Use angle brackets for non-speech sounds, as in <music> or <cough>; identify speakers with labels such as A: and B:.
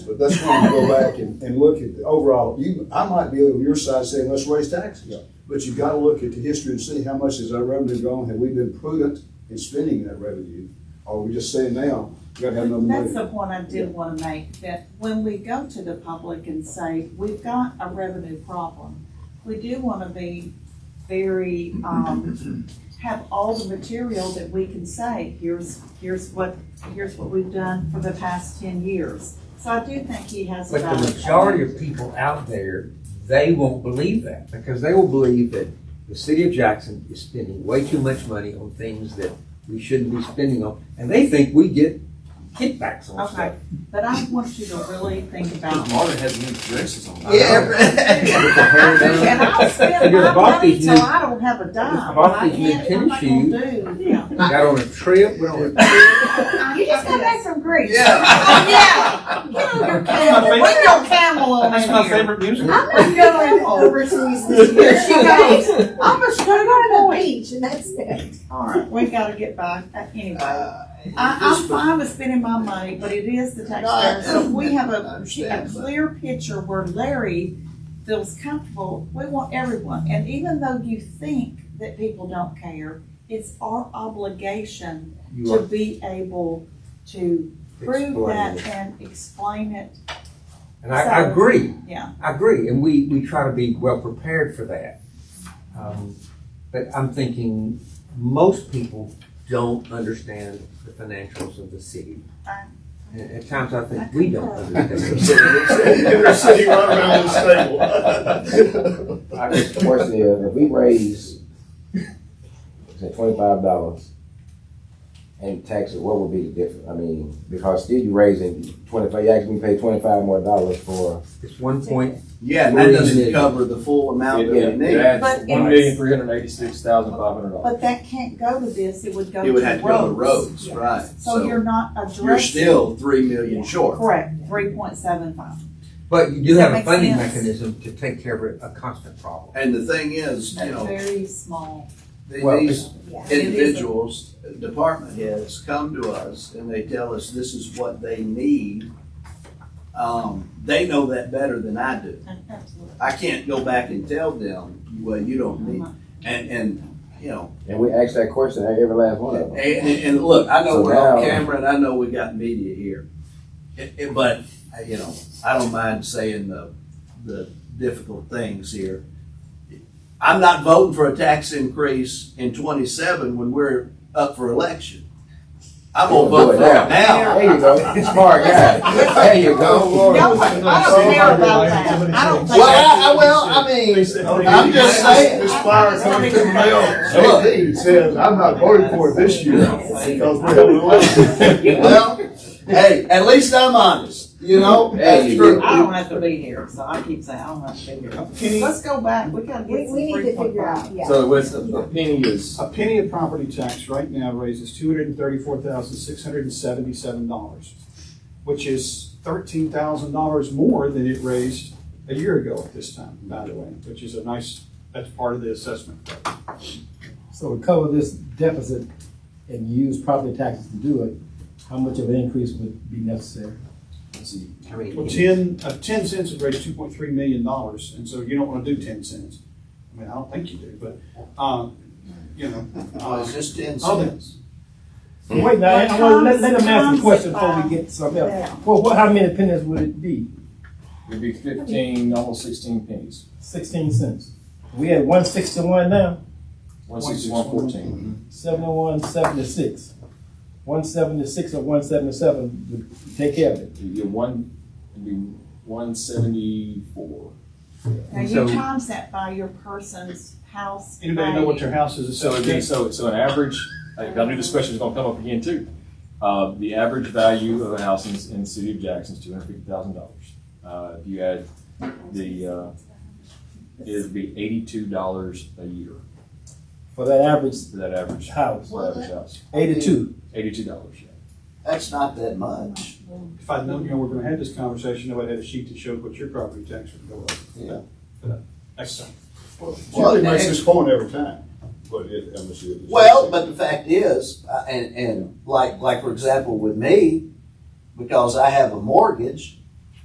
A: But that's when you go back and, and look at the overall, you, I might be on your side saying, let's raise taxes. But you've got to look at the history and see how much has our revenue gone, have we been prudent in spending that revenue? Or are we just saying now, we gotta have another
B: That's the
A: money?
B: point I did want to make, that when we go to the public and say, we've got a revenue problem, we do want to be very, um, have all the material that we can say, here's, here's what, here's what we've done for the past ten years. So I do think he has a
C: But
B: valid
C: the
B: point.
C: majority of people out there, they won't believe that, because they will believe that the city of Jackson is spending way too much money on things that we shouldn't be spending on, and they think we get kickbacks on
B: Okay,
C: stuff.
B: but I want you to really think about.
C: <laughs>
D: Marvin has new dresses on.
B: I do, and I'll spend
C: You're
B: my
C: about
B: money
C: these
B: till
C: new-
B: I don't have a dime.
C: about
B: I
C: these new
B: can't, I'm not
C: tennis
B: gonna do, yeah.
C: Got on a trip, went on a
B: You just got back from Greece.
D: Yeah.
B: Yeah. Get on your camel. Bring your camel on in here.
D: music.
E: I'm gonna go to overseas this year.
B: <laughs>
E: She goes, I'm just gonna go to the beach and that's it.
B: All right, we gotta get by, Uh, anyway. I, I'm fine with spending my money, but it is the taxpayers. So if we have a, a clear picture where Larry feels comfortable, we want everyone. And even though you think that people don't care, it's our obligation
C: you
B: to
C: are
B: be able to prove
C: exploiting
B: that
C: it.
B: and explain it.
C: And I, I
B: So-
C: agree,
B: Yeah,
C: I agree, and we, we try to be well prepared for that. Um, But I'm thinking most people don't understand the financials of the city.
B: I-
C: And at times I
B: I
C: think we don't
B: concur.
C: understand. <laughs>
A: They're sitting right around this table.
F: I guess the question is, if we raise, say twenty-five dollars in taxes, what would be the difference? I mean, because still you raising twenty-five, you actually pay twenty-five more dollars for,
C: It's one point
D: Yeah, and that doesn't cover the full amount that we need.
B: But
G: One million, three hundred eighty-six thousand, five hundred dollars.
B: But that can't go to this, it would go to roads.
D: It would have to go to roads,
B: Yeah.
D: right?
B: So you're not
D: You're
B: addressing.
D: still three million short.
B: Correct, three point seven five.
C: But you do
B: Does that
C: have a
B: make
C: funding
B: sense?
C: mechanism to take care of a a constant problem.
D: And the thing is, you
B: That's
D: know,
B: very small.
D: th-
C: Well,
D: these
E: Yeah.
D: individuals, department heads come to us and they tell us this is what they need. Um, they know that better than I do.
B: Absolutely.
D: I can't go back and tell them, well, you don't need,
B: Uh-huh.
D: and, and, you know,
F: and we ask that question at every last one of
D: And,
F: them.
D: and, and look, I know
F: So
D: we're on
F: now-
D: camera and I know we got media here. It- it- but, uh, you know, I don't mind saying the, the difficult things here. I'm not voting for a tax increase in twenty-seven when we're up for election. I'm gonna vote for it now.
F: There you go, <laughs> smart guy, there you
B: No,
F: go.
B: I don't care about that. I don't think.
F: Well, I, I- well, I mean,
A: I'm
D: Oh, just
F: saying.
A: This fire coming from the mail, JD says, I'm not voting for it this year because we're having an election.
D: Well, hey, at least I'm honest, you know?
F: There you
D: After-
F: go.
B: I don't have to be here, so I keep saying, I don't have to be here. Let's go back, we gotta
E: We,
B: get some
E: we need
B: three
E: to
B: point
E: figure
B: five.
E: out, yeah.
G: So what's, a a penny is,
H: A penny of property tax right now raises two hundred and thirty-four thousand, six hundred and seventy-seven dollars, which is thirteen thousand dollars more than it raised a year ago at this time, by the way, which is a nice, that's part of the assessment.
I: So to cover this deficit and use property taxes to do it, how much of an increase would be necessary?
C: How many?
H: Well, ten, uh, ten cents would raise two point three million dollars, and so you don't wanna do ten cents. I mean, I don't think you do, but, um, you know.
D: Oh, it's just ten
H: Oh, then.
D: cents.
I: Wait, now, I wanna let, let them ask a question before we get to something else.
B: Yeah.
I: Well, what, how many pennies would it be?
G: it'd be fifteen, almost sixteen pennies,
I: Sixteen cents. We had one sixty-one now,
G: one sixty-one fourteen.
I: seventy-one, seventy-six. One seventy-six or one seventy-seven would take care of it.
G: You'd get one, it'd be one seventy-four.
B: Now
C: So-
B: you times that by your person's house.
H: Anybody know what their house is
G: So it'd be,
H: assessed
G: so, so an average, I I knew this question was gonna come up again too. Uh, the average value of a house in, in the city of Jackson is two hundred fifty thousand dollars. Uh, if you add the, uh, it'd be eighty-two dollars a year
I: For that average
G: for that average,
I: house,
G: for that average house,
I: eighty-two.
G: eighty-two dollage, yeah.
D: That's not that much.
H: If I'd known, you know, we're gonna have this conversation, I would have had a sheet that showed what your property tax would go up.
D: Yeah.
H: But, Next time.
D: <laughs>
A: Charlie makes this point every time, but it, I'm sure. it's-
D: Well, but the fact is, uh, and, and like, like for example, with me, because I have a mortgage,